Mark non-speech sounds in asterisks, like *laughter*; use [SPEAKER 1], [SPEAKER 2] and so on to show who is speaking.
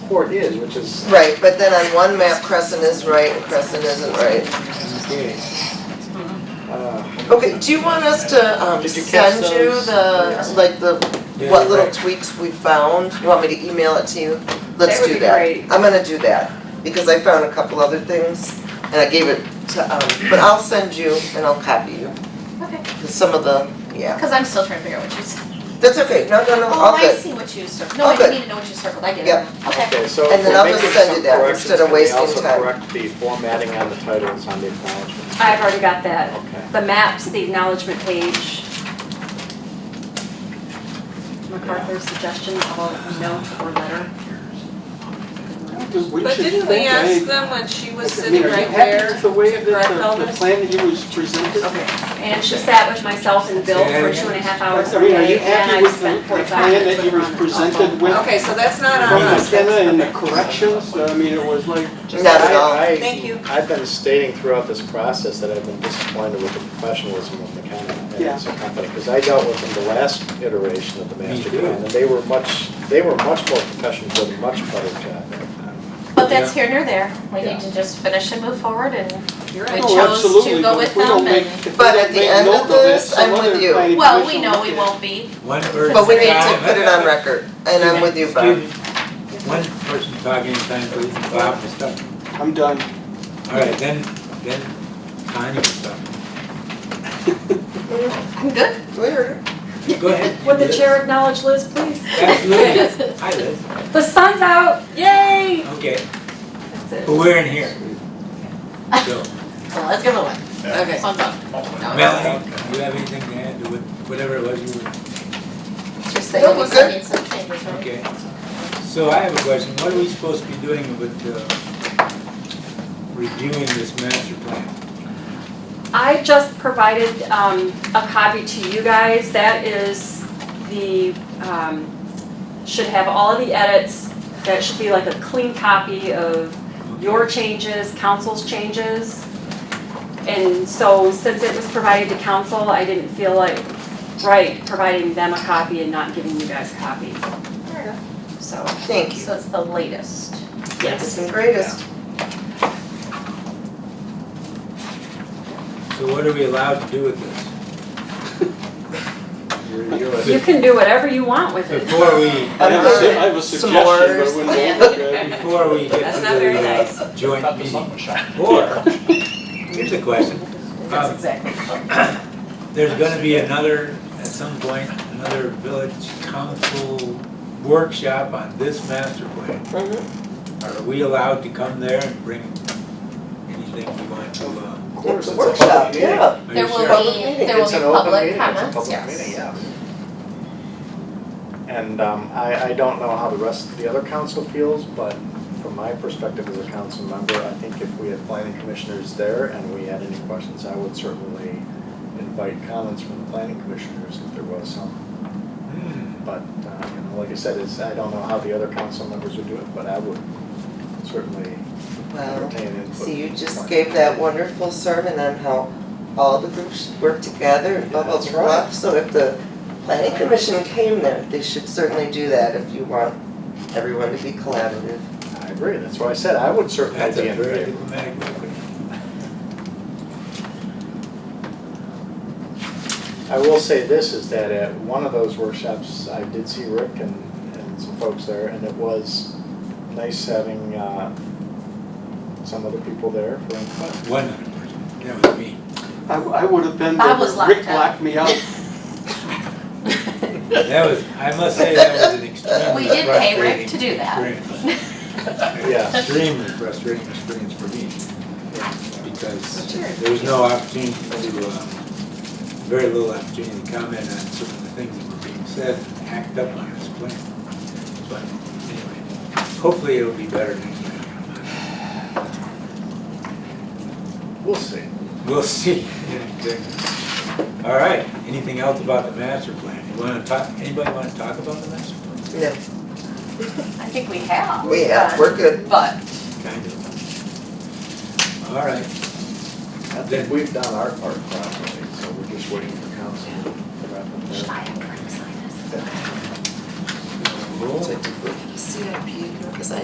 [SPEAKER 1] Newport is, which is,
[SPEAKER 2] Right, but then on one map Crescent is right and Crescent isn't right.
[SPEAKER 1] okay. Uh,
[SPEAKER 2] Okay, do you want us to um
[SPEAKER 1] Did you catch
[SPEAKER 2] send you
[SPEAKER 1] those?
[SPEAKER 2] the, like the,
[SPEAKER 1] Yeah,
[SPEAKER 2] what
[SPEAKER 1] you're
[SPEAKER 2] little
[SPEAKER 1] right.
[SPEAKER 2] tweaks we found? You want me to email it to you?
[SPEAKER 3] That
[SPEAKER 2] Let's
[SPEAKER 3] would
[SPEAKER 2] do
[SPEAKER 3] be
[SPEAKER 2] that.
[SPEAKER 3] great.
[SPEAKER 2] I'm gonna do that, because I found a couple other things and I gave it to, um, but I'll send you and I'll copy you.
[SPEAKER 3] Okay,
[SPEAKER 2] Some of the, yeah,
[SPEAKER 3] because I'm still trying to figure out what you said.
[SPEAKER 2] that's okay, no, no, no,
[SPEAKER 3] Oh,
[SPEAKER 2] all
[SPEAKER 3] I
[SPEAKER 2] good.
[SPEAKER 3] see what you circled. No,
[SPEAKER 2] All
[SPEAKER 3] I
[SPEAKER 2] good.
[SPEAKER 3] need to know what you circled. I get it.
[SPEAKER 2] Yep.
[SPEAKER 3] Okay.
[SPEAKER 1] Okay, so
[SPEAKER 2] And
[SPEAKER 1] if
[SPEAKER 2] then
[SPEAKER 1] we're
[SPEAKER 2] I'll just
[SPEAKER 1] making
[SPEAKER 2] send
[SPEAKER 1] some
[SPEAKER 2] you that
[SPEAKER 1] corrections,
[SPEAKER 2] instead of
[SPEAKER 1] can we
[SPEAKER 2] wasting
[SPEAKER 1] also
[SPEAKER 2] time?
[SPEAKER 1] correct the formatting on the titles on the acknowledgements?
[SPEAKER 4] I've already got that.
[SPEAKER 1] Okay.
[SPEAKER 4] The maps, the acknowledgement page. MacArthur's suggestion of a note or letter.
[SPEAKER 5] But didn't we ask them when she was sitting right there
[SPEAKER 6] The
[SPEAKER 5] to
[SPEAKER 6] way that
[SPEAKER 5] correct all
[SPEAKER 6] the, the
[SPEAKER 5] this?
[SPEAKER 6] plan that you was presented.
[SPEAKER 4] And she sat with myself and Bill for two and a half hours
[SPEAKER 6] I
[SPEAKER 4] a
[SPEAKER 6] mean, are you
[SPEAKER 4] day, and
[SPEAKER 6] happy
[SPEAKER 4] I
[SPEAKER 6] with the,
[SPEAKER 4] spent
[SPEAKER 6] the
[SPEAKER 4] forty-five
[SPEAKER 6] plan
[SPEAKER 4] minutes
[SPEAKER 6] that you
[SPEAKER 4] with
[SPEAKER 6] was
[SPEAKER 4] them on the phone.
[SPEAKER 6] presented with
[SPEAKER 5] Okay, so that's not on
[SPEAKER 6] from
[SPEAKER 5] us.
[SPEAKER 6] McKenna
[SPEAKER 5] That's-
[SPEAKER 6] and the corrections? I mean, it was like,
[SPEAKER 2] Not at all.
[SPEAKER 1] I- I-
[SPEAKER 5] Thank you.
[SPEAKER 1] I've been stating throughout this process that I've been disappointed with the professionalism of McKenna and
[SPEAKER 6] Yeah.
[SPEAKER 1] as a company, because I dealt with them the last iteration of the master
[SPEAKER 6] too.
[SPEAKER 1] plan, and they were much, they were much more professional, did a much better job at that.
[SPEAKER 3] But that's here nor there. We
[SPEAKER 1] Yeah.
[SPEAKER 3] need to just finish and move forward and
[SPEAKER 5] You're
[SPEAKER 3] We
[SPEAKER 5] right.
[SPEAKER 3] chose
[SPEAKER 6] oh,
[SPEAKER 3] to
[SPEAKER 6] absolutely,
[SPEAKER 3] go
[SPEAKER 6] but
[SPEAKER 3] with
[SPEAKER 6] if we don't
[SPEAKER 3] them
[SPEAKER 6] make,
[SPEAKER 3] and-
[SPEAKER 6] if we
[SPEAKER 2] But at
[SPEAKER 6] don't
[SPEAKER 2] the
[SPEAKER 6] make
[SPEAKER 2] end of
[SPEAKER 6] note of it,
[SPEAKER 2] this,
[SPEAKER 6] some
[SPEAKER 2] I'm
[SPEAKER 6] other
[SPEAKER 2] with you.
[SPEAKER 6] planning
[SPEAKER 3] Well, we
[SPEAKER 6] commission
[SPEAKER 3] know
[SPEAKER 6] will
[SPEAKER 3] we
[SPEAKER 6] look at it.
[SPEAKER 3] won't be.
[SPEAKER 7] One person.
[SPEAKER 2] But we need to
[SPEAKER 7] talking-
[SPEAKER 2] put it on record, and I'm with you, Bob.
[SPEAKER 7] Excuse me. One person talking, time for Bob was talking.
[SPEAKER 6] I'm done.
[SPEAKER 7] All right, then, then Tanya was talking.
[SPEAKER 3] I'm good.
[SPEAKER 2] We heard her.
[SPEAKER 7] Go
[SPEAKER 4] *laughs*
[SPEAKER 7] ahead.
[SPEAKER 4] Would the chair acknowledge Liz, please?
[SPEAKER 7] Absolutely. Hi, Liz.
[SPEAKER 4] The sun's out, yay!
[SPEAKER 7] Okay,
[SPEAKER 4] That's it.
[SPEAKER 7] but we're in here.
[SPEAKER 2] *laughs*
[SPEAKER 7] So,
[SPEAKER 3] *laughs* Well, let's give it away. Okay. I'm done. No,
[SPEAKER 7] Melanie, do you have anything to add to what- whatever it was you were?
[SPEAKER 3] Just that
[SPEAKER 2] No,
[SPEAKER 3] you
[SPEAKER 2] we're
[SPEAKER 3] said
[SPEAKER 2] good.
[SPEAKER 3] need some changes, right?
[SPEAKER 7] Okay, so I have a question, what are we supposed to be doing with uh, reviewing this master plan?
[SPEAKER 4] I just provided um, a copy to you guys. That is the, um, should have all of the edits. That should be like a clean copy of your changes, council's changes. And so since it was provided to council, I didn't feel like, right, providing them a copy and not giving you guys a copy. So,
[SPEAKER 2] Thank you.
[SPEAKER 3] So it's the latest.
[SPEAKER 2] It's
[SPEAKER 4] yes.
[SPEAKER 2] the greatest.
[SPEAKER 7] So what are we allowed to do with this?
[SPEAKER 1] You're- you're a-
[SPEAKER 4] You can do whatever you want with it.
[SPEAKER 7] Before we,
[SPEAKER 6] I have a su-
[SPEAKER 2] Okay.
[SPEAKER 6] I have a suggestion, but it
[SPEAKER 2] S'mores.
[SPEAKER 6] wouldn't
[SPEAKER 3] Yeah.
[SPEAKER 6] look good.
[SPEAKER 3] *laughs*
[SPEAKER 7] before we get
[SPEAKER 6] *laughs*
[SPEAKER 5] That's
[SPEAKER 7] to
[SPEAKER 5] not very nice.
[SPEAKER 7] the uh, joint meeting. Or, here's a question,
[SPEAKER 3] That's
[SPEAKER 7] Um,
[SPEAKER 3] exactly.
[SPEAKER 7] there's gonna be another, at some point, another village council workshop on this master plan.
[SPEAKER 2] Mhm.
[SPEAKER 7] Are we allowed to come there and bring anything we want to, uh?
[SPEAKER 1] Of course,
[SPEAKER 2] It's
[SPEAKER 1] it's
[SPEAKER 2] a
[SPEAKER 1] a public
[SPEAKER 2] workshop,
[SPEAKER 1] meeting.
[SPEAKER 2] yeah.
[SPEAKER 7] are you
[SPEAKER 3] There
[SPEAKER 7] sure?
[SPEAKER 3] will
[SPEAKER 2] Public
[SPEAKER 3] be,
[SPEAKER 2] meeting.
[SPEAKER 3] there will
[SPEAKER 1] It's
[SPEAKER 3] be
[SPEAKER 1] an open
[SPEAKER 3] public
[SPEAKER 1] meeting, it's a
[SPEAKER 3] comments,
[SPEAKER 1] public meeting,
[SPEAKER 3] *laughs* yes.
[SPEAKER 1] yeah. And um, I, I don't know how the rest of the other council feels, but from my perspective as a council member, I think if we had planning commissioners there and we had any questions, I would certainly invite comments from the planning commissioners if there was some.
[SPEAKER 7] Hmm.
[SPEAKER 1] But, uh, you know, like I said, it's, I don't know how the other council members would do it, but I would certainly
[SPEAKER 2] Wow.
[SPEAKER 1] entertain input.
[SPEAKER 2] So you just
[SPEAKER 1] from-
[SPEAKER 2] gave that wonderful sermon on how all the groups should work together and blah, blah,
[SPEAKER 1] That's
[SPEAKER 2] blah.
[SPEAKER 1] right.
[SPEAKER 2] So if the planning commission came there, they should certainly do that if you want everyone to be collaborative.
[SPEAKER 1] I agree, that's why I said I would certainly
[SPEAKER 7] That's
[SPEAKER 1] be
[SPEAKER 7] a
[SPEAKER 1] in
[SPEAKER 7] very
[SPEAKER 1] favor.
[SPEAKER 7] diplomatic way.
[SPEAKER 1] I will say this, is that at one of those workshops, I did see Rick and, and some folks there, and it was nice having, uh, some other people there for input.
[SPEAKER 7] One hundred percent, that was me.
[SPEAKER 6] I, I would have been there,
[SPEAKER 3] Bob was
[SPEAKER 6] but Rick
[SPEAKER 3] locked up.
[SPEAKER 6] locked me out.
[SPEAKER 7] That was, I must say, that was an extremely
[SPEAKER 3] We did pay Rick to do
[SPEAKER 7] frustrating
[SPEAKER 3] that.
[SPEAKER 7] experience.
[SPEAKER 1] Yeah.
[SPEAKER 7] Extremely frustrating experience for me, because there was no opportunity to, uh, very little opportunity to comment on some of the things that were being said, and act up on this plan. But anyway, hopefully it'll be better next time.
[SPEAKER 1] We'll see.
[SPEAKER 7] We'll see. *laughs* Yeah, exactly. All right, anything else about the master plan? You wanna talk, anybody wanna talk about the master plan?
[SPEAKER 2] No,
[SPEAKER 3] I think we have.
[SPEAKER 2] we have, we're good.
[SPEAKER 3] But
[SPEAKER 7] Kind of. All right.
[SPEAKER 1] I think we've done our part properly, so we're just waiting for council to wrap up
[SPEAKER 3] should
[SPEAKER 1] their.
[SPEAKER 3] I have Craig sign this?
[SPEAKER 2] CIP, because I